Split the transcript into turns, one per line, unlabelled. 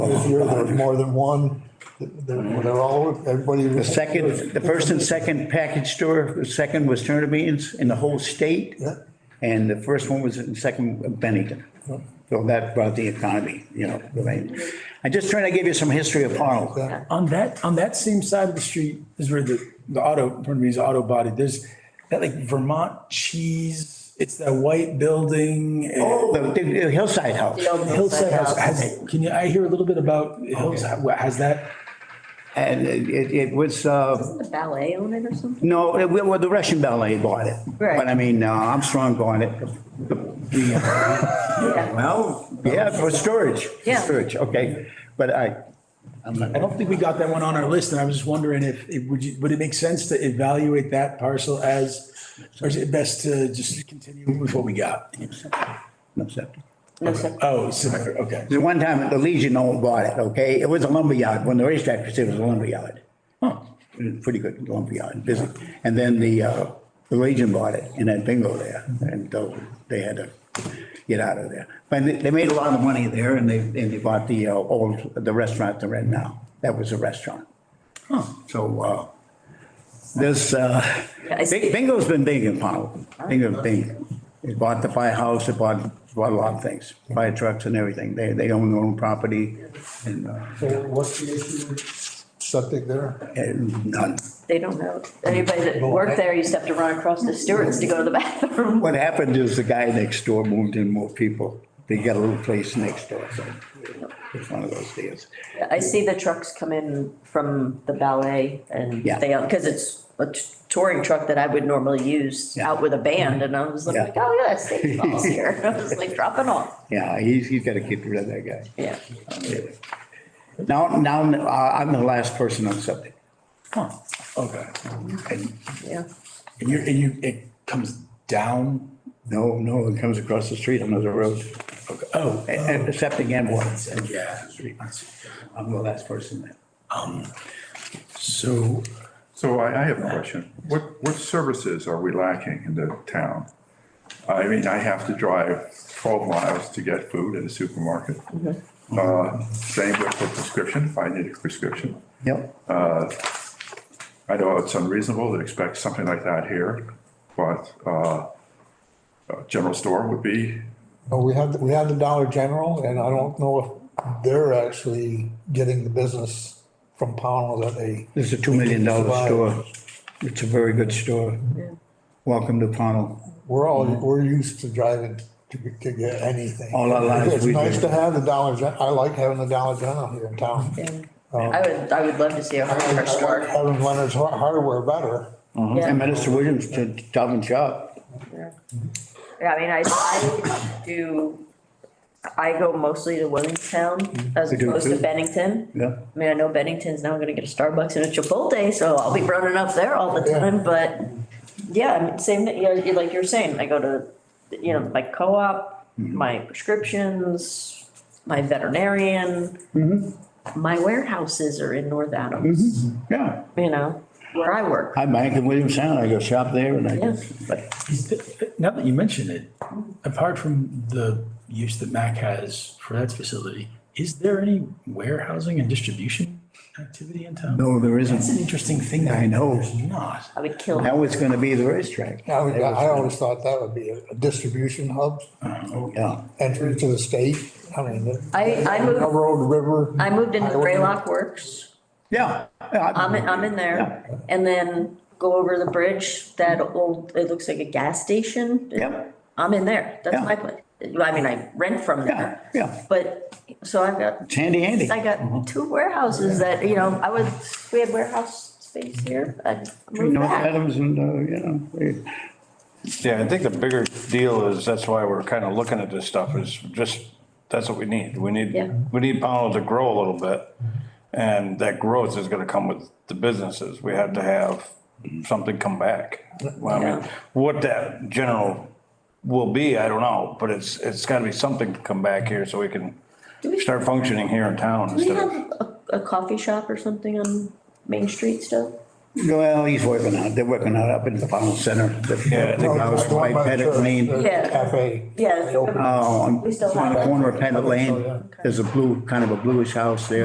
Oh,
this year, there was more than one. They're they're all, everybody.
The second, the first and second package store, the second was Turner Beans in the whole state.
Yeah.
And the first one was in second Bennington. So that brought the economy, you know, right? I'm just trying to give you some history of Harlem.
Yeah.
On that, on that same side of the street is where the, the auto, pardon me, is auto body. There's that like Vermont cheese. It's that white building. and
Oh, The the Hillside House.
The old
Hillside House, has, can you, I hear a little bit about Hillside, what has that?
And it, it was, uh,
The ballet on it or something?
no, it- well, the Russian ballet bought it.
Right.
But I mean, uh, Armstrong bought it.
Yeah.
Well, yeah, for storage. for
Yeah.
Storage, okay. But I, I'm not.
I don't think we got that one on our list and I was just wondering if, it would you, would it make sense to evaluate that parcel as, or is it best to just continue with what we got?
No, septic.
No, so-
Oh, similar, okay.
The one time the Legion owned bought it, okay? It was a lumberyard. When the racetrack was, there, it was a lumberyard. It was a Pretty good lumberyard, busy. And then the, uh, the Legion bought it and had bingo there. And so they had to get out of there. But they, they made a lot of money there and they, and they bought the uh, old, the restaurant they're in now. That was a restaurant. So, uh, this, uh,
I see.
Bing- bingo's been big in Powell. Bingo, bingo. They bought the firehouse, they bought, bought a lot of things, fire trucks and everything. They, they own their own property and, uh,
So what's the issue with septic there?
and none.
They don't know. Anybody that worked there used to have to run across the stewards to go to the bathroom.
What happened is the guy next door moved in more people. They got a little place next door, so it's one of those deals.
I see the trucks come in from the ballet and
Yeah.
they, because it's a t- touring truck that I would normally use
Yeah.
out with a band and I was like,
Yeah.
oh, yeah, Satan Paul's here. I was like dropping off.
Yeah, he's, he's got to get rid of that guy.
Yeah.
Anyway. Now, now, uh, I'm the last person on something.
Huh, okay. And
Yeah.
And you, and you, it comes down,
No, no, it comes across the street on another road,
okay, oh, eh,
accepting and water.
yeah.
I'm the last person there.
Um, So,
So I, I have a question. What, what services are we lacking in the town? I mean, I have to drive 12 miles to get food at a supermarket. Uh, Same with the prescription, if I need a prescription.
Yep.
I know it's unreasonable to expect something like that here, but uh, a general store would be,
Oh, we had, we had the Dollar General and I don't know if they're actually getting the business from Pownell that they.
This is a $2 million
Survive.
store. It's a very good store. Welcome to Pownell.
We're all, we're used to driving to, get- to get anything.
Mm-hmm. All our lives
It's
we
nice
do.
to have the Dollar Gen, I like having the Dollar General here in town.
Oh.
I would, I would love to see a
I
hardware
like
store.
Having Leonard's Har- Hardware better.
Yeah.
And Minister Williams to Stop and Shop.
Yeah, I mean, I, I do, I go mostly to Williamstown
I
as
Mm-hmm. do
opposed to
too.
Bennington.
Yeah.
I mean, I know Bennington's now gonna get a Starbucks and a Chipotle, so I'll be running up there all the
Yeah.
time, but yeah, I mean, same, thing, yeah, you- like you're saying, I go to, you know, my co-op, my prescriptions, my veterinarian. My warehouses are in North Adams,
Yeah.
you know, where I work.
I bank in Williamstown. I go shop there and I go.
Yeah.
but-
is the- now that you mention it, apart from the use that MAC has for that facility, is there any warehousing and distribution activity in town?
No, there
That's an
isn't.
interesting thing. that
I know.
There's not.
I would kill.
Now it's going to be the racetrack.
I would- I always thought that would be a a distribution hub,
Yeah.
entry to the state. I mean.
I- I moved-
Railroad, river.
I moved into
highway.
Graylock Works.
Yeah.
I'm, in- I'm in there, and then go over the bridge, that old, it looks like a gas station.
Yep.
I'm in there,
Yeah.
that's my place, I mean, I rent from
Yeah, Mm-hmm.
there.
yeah.
But, so I've got,
It's handy, handy.
I got two warehouses that, you know, I would, we had warehouse space here, I'd move
North
that.
Adams and, uh, you know, they-
Yeah, I think the bigger deal is, that's why we're kind of looking at this stuff, is just, that's what we need. We need,
Yeah.
we need Pownell to grow a little bit. And that growth is gonna come with the businesses. We have to have something come back. Well, I
Yeah.
mean, what that general will be, I don't know, but it's, it's gotta be something to come back here so we can
Do we-
start functioning here in town
Do we
instead
have
of.
a, a coffee shop or something on Main Street still?
Well, he's working on it. They're working on it up in the final center.
Yeah, I think
Well,
House
it's one
by
by the
Pettit
church,
Lane.
the
Yeah.
Cafe.
Yeah.
They open
Oh, on
We still
on
have
the
it.
corner of Pettit
Oh,
Lane,
yeah.
there's a blue, kind of a bluish house there.